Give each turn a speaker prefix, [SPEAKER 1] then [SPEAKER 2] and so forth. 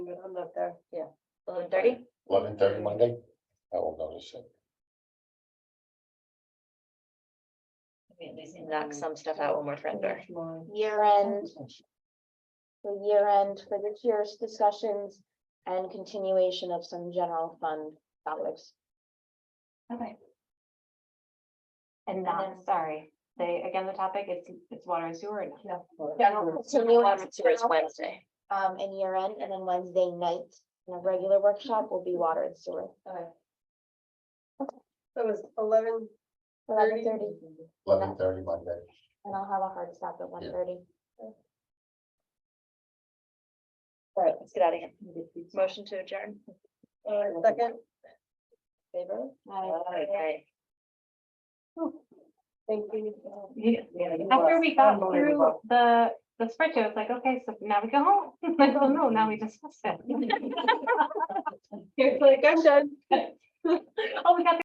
[SPEAKER 1] I'm up there, yeah.
[SPEAKER 2] eleven thirty?
[SPEAKER 3] Eleven thirty Monday, I will notice it.
[SPEAKER 2] We at least knock some stuff out when we're friendly.
[SPEAKER 1] Tomorrow.
[SPEAKER 4] year end, the year end for this year's discussions and continuation of some general fund topics.
[SPEAKER 2] Okay. And not, sorry, they, again, the topic, it's, it's water and sewer. and-
[SPEAKER 1] General-
[SPEAKER 4] So we
[SPEAKER 2] Water and sewer is
[SPEAKER 4] have,
[SPEAKER 2] Wednesday.
[SPEAKER 4] um, and year end, and then Wednesday night, and a regular workshop will be water and sewer.
[SPEAKER 2] Okay.
[SPEAKER 1] That was eleven
[SPEAKER 4] Eleven thirty,
[SPEAKER 3] Eleven thirty Monday.
[SPEAKER 4] and I'll have a hard stop at one thirty.
[SPEAKER 2] All right, let's get out of here. Motion to adjourn.
[SPEAKER 1] Uh, second,
[SPEAKER 4] Favor?
[SPEAKER 2] Okay.
[SPEAKER 1] thank you.
[SPEAKER 5] After we got through the, the spreadsheet, it's like, okay, so now we go home. Like, oh no, now we discussed it.
[SPEAKER 1] You're like, I'm done.
[SPEAKER 5] Oh, we got